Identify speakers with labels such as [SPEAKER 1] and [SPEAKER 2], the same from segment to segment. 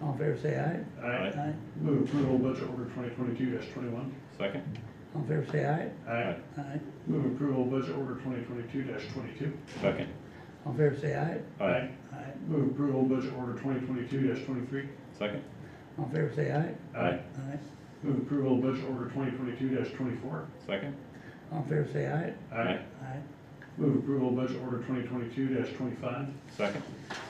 [SPEAKER 1] in favor say aye.
[SPEAKER 2] Aye.
[SPEAKER 1] Aye.
[SPEAKER 3] Move approval of budget order twenty twenty-two twenty-one.
[SPEAKER 2] Second?
[SPEAKER 1] All in favor say aye.
[SPEAKER 2] Aye.
[SPEAKER 1] Aye.
[SPEAKER 3] Move approval of budget order twenty twenty-two twenty-two.
[SPEAKER 2] Second?
[SPEAKER 1] All in favor say aye. Aye.
[SPEAKER 3] Move approval of budget order twenty twenty-two twenty-three.
[SPEAKER 2] Second?
[SPEAKER 1] All in favor say aye.
[SPEAKER 2] Aye.
[SPEAKER 1] Aye.
[SPEAKER 3] Move approval of budget order twenty twenty-two twenty-four.
[SPEAKER 2] Second?
[SPEAKER 1] All in favor say aye. Aye.
[SPEAKER 3] Move approval of budget order twenty twenty-two twenty-five.
[SPEAKER 2] Second?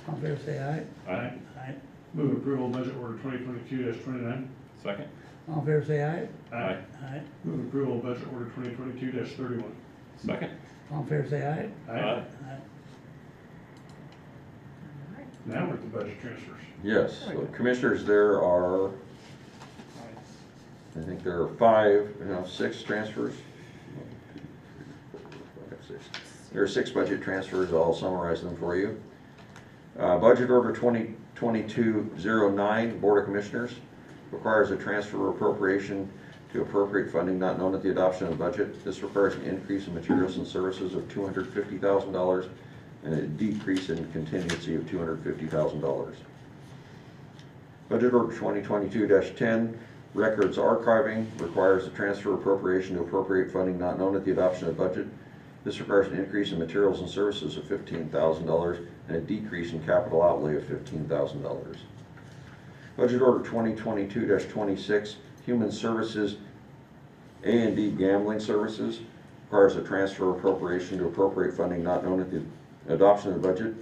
[SPEAKER 1] All in favor say aye.
[SPEAKER 2] Aye.
[SPEAKER 1] Aye.
[SPEAKER 3] Move approval of budget order twenty twenty-two twenty-nine.
[SPEAKER 2] Second?
[SPEAKER 1] All in favor say aye.
[SPEAKER 2] Aye.
[SPEAKER 1] Aye.
[SPEAKER 3] Move approval of budget order twenty twenty-two thirty-one.
[SPEAKER 2] Second?
[SPEAKER 1] All in favor say aye. Aye.
[SPEAKER 3] Now we're at the budget transfers.
[SPEAKER 4] Yes, so commissioners, there are, I think there are five, no, six transfers. Six. There are six budget transfers, I'll summarize them for you. Uh, Budget Order 2022-09, Board of Commissioners, requires a transfer appropriation to appropriate funding not known at the adoption of the budget. This requires an increase in materials and services of $250,000 and a decrease in contingency of $250,000. Budget Order 2022-10, Records Archiving, requires a transfer appropriation to appropriate funding not known at the adoption of the budget. This requires an increase in materials and services of $15,000 and a decrease in capital outlay of $15,000. Budget Order 2022-26, Human Services a and D Gambling Services, requires a transfer appropriation to appropriate funding not known at the adoption of the budget.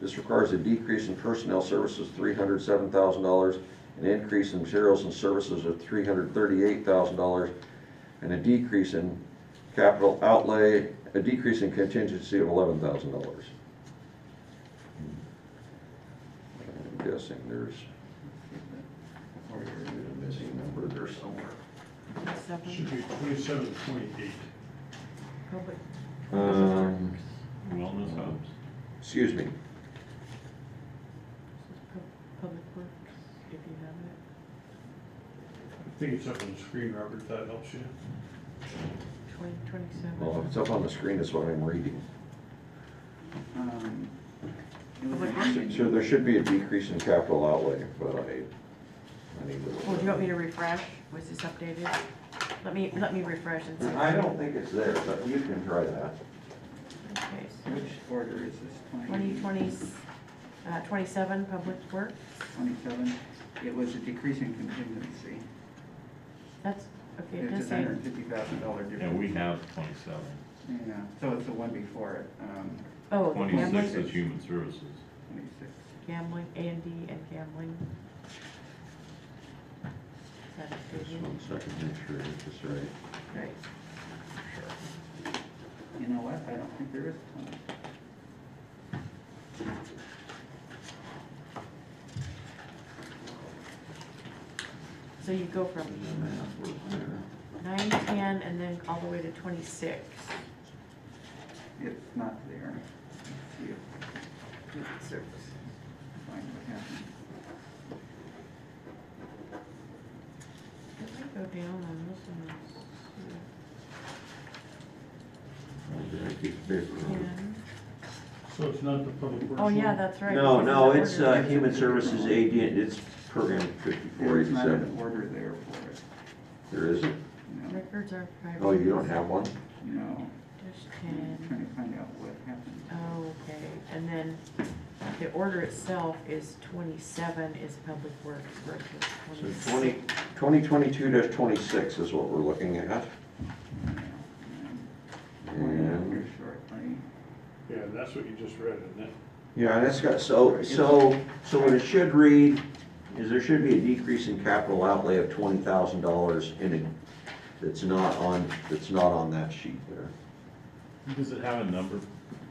[SPEAKER 4] This requires a decrease in personnel services, three hundred seven thousand dollars, an increase in materials and services of three hundred thirty-eight thousand dollars, and a decrease in capital outlay, a decrease in contingency of eleven thousand dollars. I'm guessing there's. oh, there's a Missing number there somewhere.
[SPEAKER 3] Should be twenty-seven, twenty-eight.
[SPEAKER 4] Um,
[SPEAKER 2] Wellness hubs?
[SPEAKER 4] excuse me,
[SPEAKER 5] Public Works, if you have
[SPEAKER 3] I think it's up on the screen, Robert, if that helps you.
[SPEAKER 5] it, twenty, twenty-seven.
[SPEAKER 4] well, if it's up on the screen, that's what I'm reading.
[SPEAKER 6] Um, it was
[SPEAKER 5] What
[SPEAKER 6] an
[SPEAKER 5] happened?
[SPEAKER 6] action.
[SPEAKER 4] So there should be a decrease in capital outlay, but I, I need to.
[SPEAKER 5] Well, do you want me to refresh? Was this updated? Let me, let me refresh and see.
[SPEAKER 4] I don't think it's there, but you can try that.
[SPEAKER 5] Okay, so
[SPEAKER 6] Which order is this,
[SPEAKER 5] twenty
[SPEAKER 6] 20,
[SPEAKER 5] twenty, uh, twenty-seven, Public Works,
[SPEAKER 6] 27? It was a decrease in contingency.
[SPEAKER 5] that's, okay, it
[SPEAKER 6] It's
[SPEAKER 5] does
[SPEAKER 6] a
[SPEAKER 5] say,
[SPEAKER 6] hundred and fifty thousand dollar difference.
[SPEAKER 2] And we have twenty-seven.
[SPEAKER 6] Yeah, so it's the one before it, um,
[SPEAKER 5] oh, the
[SPEAKER 2] Twenty-six
[SPEAKER 5] gambling,
[SPEAKER 2] is human services.
[SPEAKER 6] twenty-six.
[SPEAKER 5] gambling, A and D and gambling. Is that
[SPEAKER 4] Just
[SPEAKER 5] updated?
[SPEAKER 4] one second, make sure I get this right.
[SPEAKER 5] Right,
[SPEAKER 6] You know what, I don't think there is a twenty.
[SPEAKER 5] so you go from nine, ten, and then all the way to twenty-six.
[SPEAKER 6] It's not there. Let's see if- Twenty-six. Find what happened.
[SPEAKER 5] Let me go down on this one. and see.
[SPEAKER 3] So it's not the public works.
[SPEAKER 5] Oh, yeah,
[SPEAKER 3] one?
[SPEAKER 5] that's right.
[SPEAKER 4] No,
[SPEAKER 5] because
[SPEAKER 4] no,
[SPEAKER 5] the
[SPEAKER 4] it's,
[SPEAKER 5] order
[SPEAKER 4] uh,
[SPEAKER 5] is-
[SPEAKER 4] Human Services AD, it's program fifty-four
[SPEAKER 6] There's not an
[SPEAKER 4] eighty-seven.
[SPEAKER 6] order there for it,
[SPEAKER 4] There isn't?
[SPEAKER 6] no,
[SPEAKER 5] Records are private.
[SPEAKER 4] Oh, you don't have one?
[SPEAKER 6] no.
[SPEAKER 5] Just
[SPEAKER 6] I'm
[SPEAKER 5] ten.
[SPEAKER 6] trying to find out what happened.
[SPEAKER 5] Oh, okay, and then the order itself is twenty-seven is public works versus
[SPEAKER 4] So
[SPEAKER 5] twenty-six.
[SPEAKER 4] twenty, twenty twenty-two dash twenty-six is what we're looking at.
[SPEAKER 5] Oh.
[SPEAKER 6] One
[SPEAKER 4] And,
[SPEAKER 6] here shortly.
[SPEAKER 3] Yeah, that's what you just read, isn't it?
[SPEAKER 4] yeah, that's got, so, so, so what it should read is there should be a decrease in capital outlay of twenty thousand dollars in it. That's not on, that's not on that sheet there.
[SPEAKER 2] Does it have a number?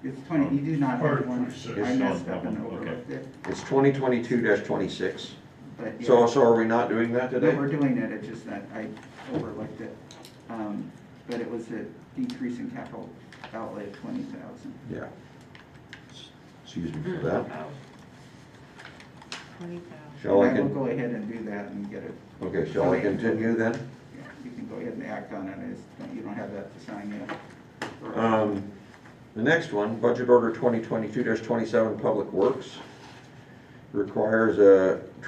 [SPEAKER 6] It's twenty, you do not
[SPEAKER 3] Part
[SPEAKER 6] have
[SPEAKER 3] of
[SPEAKER 6] one,
[SPEAKER 3] 26.
[SPEAKER 6] I messed up and
[SPEAKER 2] Oh, okay.
[SPEAKER 6] overlooked it,
[SPEAKER 4] It's twenty twenty-two twenty-six.
[SPEAKER 6] but yeah.
[SPEAKER 4] So, so are we not doing that
[SPEAKER 6] No,
[SPEAKER 4] today?
[SPEAKER 6] we're doing it, it's just that I overlooked it. Um, But it was a decrease in capital outlay of twenty thousand.
[SPEAKER 4] Yeah. Excuse me for that.
[SPEAKER 5] Twenty thousand.
[SPEAKER 4] Shall I,
[SPEAKER 6] And I will
[SPEAKER 4] con-
[SPEAKER 6] go ahead and do that and get it,
[SPEAKER 4] okay, shall I continue then?
[SPEAKER 6] yeah, you can go ahead and act on it, it's, you don't have that to sign yet.
[SPEAKER 4] Um, The next one, Budget Order 2022-27, Public Works, requires a